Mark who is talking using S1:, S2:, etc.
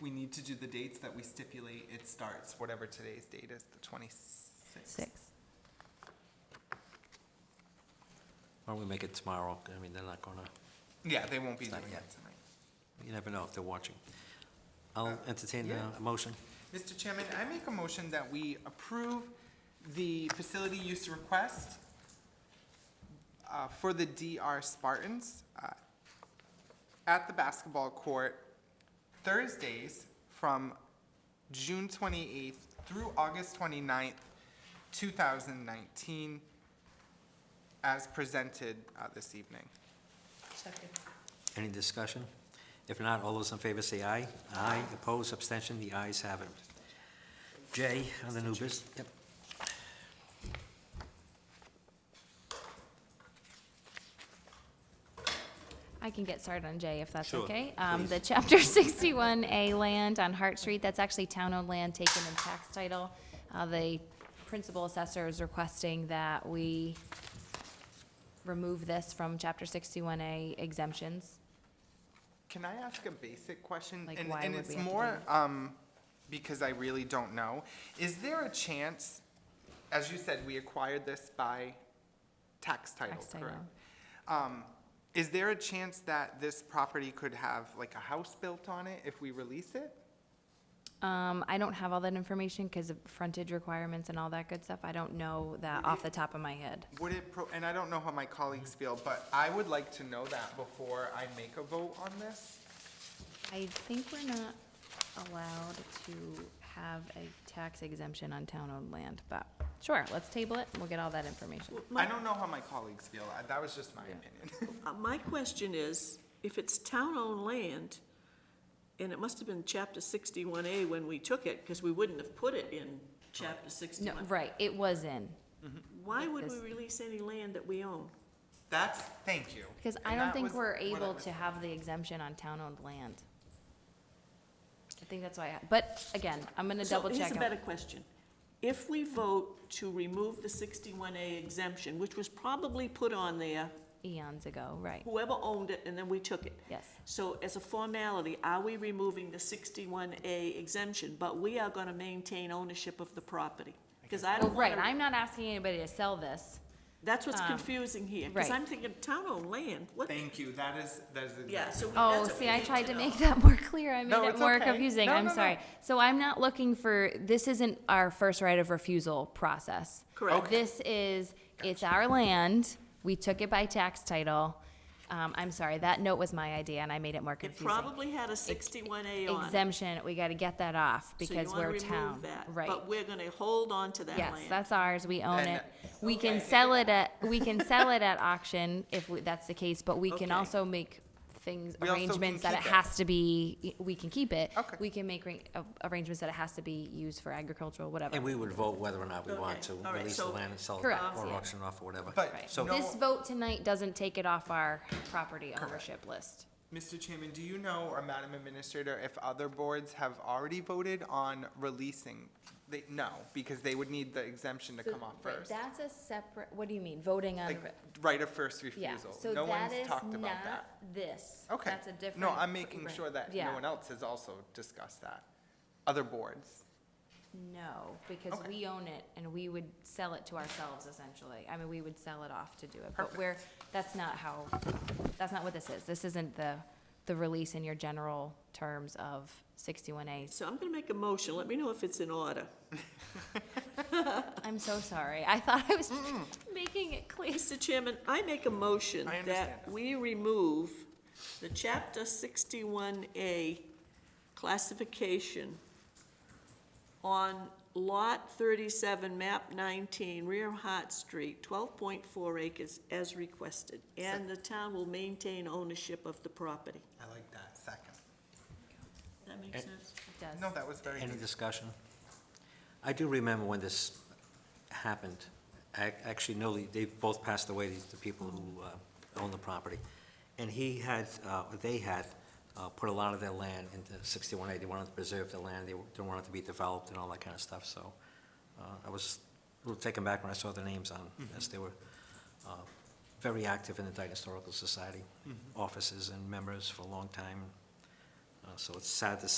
S1: we need to do the dates that we stipulate, it starts, whatever today's date is, the twenty-sixth.
S2: Six.
S3: Why don't we make it tomorrow? I mean, they're not gonna,
S1: Yeah, they won't be doing
S3: Not
S1: it
S3: yet.
S1: tonight.
S3: you never know if they're watching.
S4: Uh,
S3: I'll entertain a motion.
S1: Mr. Chairman, I make a motion that we approve the facility use request uh, for the DR Spartans uh, at the basketball court Thursdays from June 28th through August 29th, 2019, as presented uh, this evening.
S4: Second.
S3: Any discussion? If not, all those in favor say aye. Aye, opposed, abstention, the ayes have it. J, on the new business, yep.
S2: I can get started on J if that's
S3: Sure,
S2: okay. Um,
S3: please.
S2: the chapter sixty-one A land on Hart Street, that's actually town-owned land taken in tax title. Uh, the principal assessor is requesting that we remove this from chapter sixty-one A exemptions.
S1: Can I ask a basic question?
S2: Like,
S1: And-
S2: why would we have
S1: And
S2: to
S1: it's
S2: do
S1: more,
S2: that?
S1: um, because I really don't know. Is there a chance, as you said, we acquired this by tax title,
S2: Tax title.
S1: correct? Um, is there a chance that this property could have like a house built on it if we release it?
S2: Um, I don't have all that information because of frontage requirements and all that good stuff. I don't know that off the top of my head.
S1: Would it, pro- and I don't know how my colleagues feel, but I would like to know that before I make a vote on this.
S2: I think we're not allowed to have a tax exemption on town-owned land, but sure, let's table it. and We'll get all that information.
S1: I
S4: My,
S1: don't know how my colleagues feel. I- That was just my opinion.
S4: uh, my question is, if it's town-owned land, and it must have been chapter sixty-one A when we took it, because we wouldn't have put it in chapter
S2: No,
S4: sixty-one.
S2: right, it was in,
S4: Why would we
S2: This-
S4: release any land that we own?
S1: That's, thank you.
S2: because I
S1: And
S2: don't
S1: that
S2: think
S1: was
S2: we're
S1: what I
S2: able
S1: was
S2: to have the exemption on town-owned land. I think that's why, I- but again, I'm gonna double
S4: So here's
S2: check.
S4: a
S2: on-
S4: better question. If we vote to remove the sixty-one A exemption, which was probably put on there,
S2: Eons ago, right,
S4: whoever owned it, and then we took it.
S2: yes.
S4: So as a formality, are we removing the sixty-one A exemption, but we are gonna maintain ownership of the property? Because I
S2: Well,
S4: don't
S2: Oh, right,
S4: wanna,
S2: I'm not asking anybody to sell this.
S4: that's what's
S2: um,
S4: confusing here, because
S2: right.
S4: I'm thinking town-owned land, what?
S1: Thank you, that is, that is exactly.
S4: Yeah, so we-
S2: Oh,
S4: that's what
S2: see,
S4: we
S2: I
S4: need
S2: tried to
S4: know.
S2: make that more clear. I made
S1: No,
S2: it
S1: it's
S2: more
S1: okay.
S2: confusing.
S1: No,
S2: I'm
S1: no, no.
S2: sorry. So I'm not looking for, this isn't our first right of refusal process.
S4: Correct. Okay.
S2: This is, it's our land. We took it by tax title. Um, I'm sorry, that note was my idea and I made it more
S4: It
S2: confusing.
S4: probably had a sixty-one A on it.
S2: Exemption, we gotta get that off
S4: so you
S2: because
S4: wanna
S2: we're
S4: remove
S2: town.
S4: that,
S2: Right.
S4: But we're gonna hold on to that
S2: Yes,
S4: land.
S2: that's ours. We own
S1: And-
S2: it. We can sell it at, we can sell it at auction if we- that's the case, but we can
S4: Okay.
S2: also make things,
S1: We also can
S2: arrangements that it
S1: keep it.
S2: has to be, we can keep it.
S1: Okay.
S2: We can make arra- a- arrangements that it has to be used for agricultural, whatever.
S3: And we would vote whether or not we want
S4: Okay,
S3: to
S4: all right,
S3: release the
S4: so- um,
S3: land and sell it
S2: Correct,
S3: or
S2: yeah.
S3: auction off or whatever.
S1: But
S3: So-
S1: no-
S2: This vote tonight doesn't take it off our property ownership list.
S1: Mr. Chairman, do you know, or Madam Administrator, if other boards have already voted on releasing? They, no, because they would need the exemption to come off first.
S2: That's a separate, what do you mean, voting on?
S1: Like, right of first
S2: Yeah,
S1: refusal.
S2: so
S1: No
S2: that
S1: one's
S2: is
S1: talked about
S2: not
S1: that.
S2: this.
S1: Okay.
S2: That's a different.
S1: No, I'm making sure that
S2: Yeah.
S1: no one else has also discussed that. Other boards.
S2: No, because
S1: Okay.
S2: we own it and we would sell it to ourselves essentially. I mean, we would sell it off to do it, but we're, that's not how, that's not what this is. This isn't the, the release in your general terms of sixty-one A.
S4: So I'm gonna make a motion, let me know if it's in order.
S2: I'm so sorry. I thought I was making it clear.
S4: Mr. Chairman, I make a motion
S1: I understand
S4: that
S1: that.
S4: we remove the Chapter 61A classification on Lot 37, Map 19, rear Hart Street, 12.4 acres as requested, and the town will maintain ownership of the property.
S1: I like that second.
S4: That makes sense?
S2: It does.
S1: No, that was very
S3: Any
S1: good.
S3: discussion? I do remember when this happened. I actually know they- they both passed away, these- the people who uh, own the property. And he had, uh, or they had, uh, put a lot of their land into 61A. They wanted to preserve the land, they didn't want it to be developed and all that kind of stuff, so uh, I was a little taken back when I saw the names on
S1: Mm-hmm.
S3: this. They were uh, very active in the Dayton
S1: Mm-hmm.
S3: Historical Society, officers and members for a long time. Uh, So it's sad to